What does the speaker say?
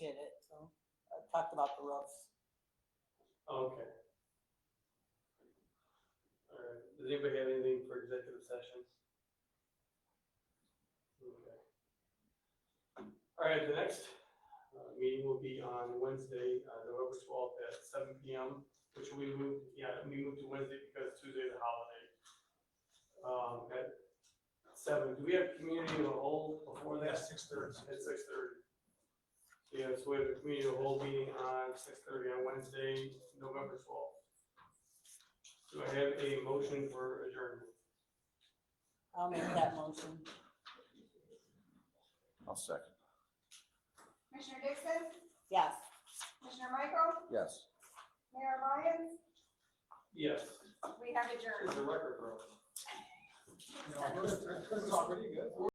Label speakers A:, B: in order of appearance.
A: talked about the roofs.
B: Okay. All right, does anybody have anything for executive session? Okay. All right, the next uh, meeting will be on Wednesday, uh, November twelfth at seven P M, which we moved, yeah, we moved to Wednesday because Tuesday is a holiday. Um, at seven, do we have community of the whole before that?
C: six thirty.
B: At six thirty. Yeah, so we have a community of the whole meeting on six thirty on Wednesday, November twelfth. Do I have a motion for adjournment?
A: I'll make that motion.
D: I'll second.
E: Commissioner Dixon,
A: Yes.
E: Commissioner Michael,
D: Yes.
E: Mayor Lyons,
B: Yes,
E: we have adjourned.
B: it's a record, bro.
C: No, we're- we're- we're pretty good.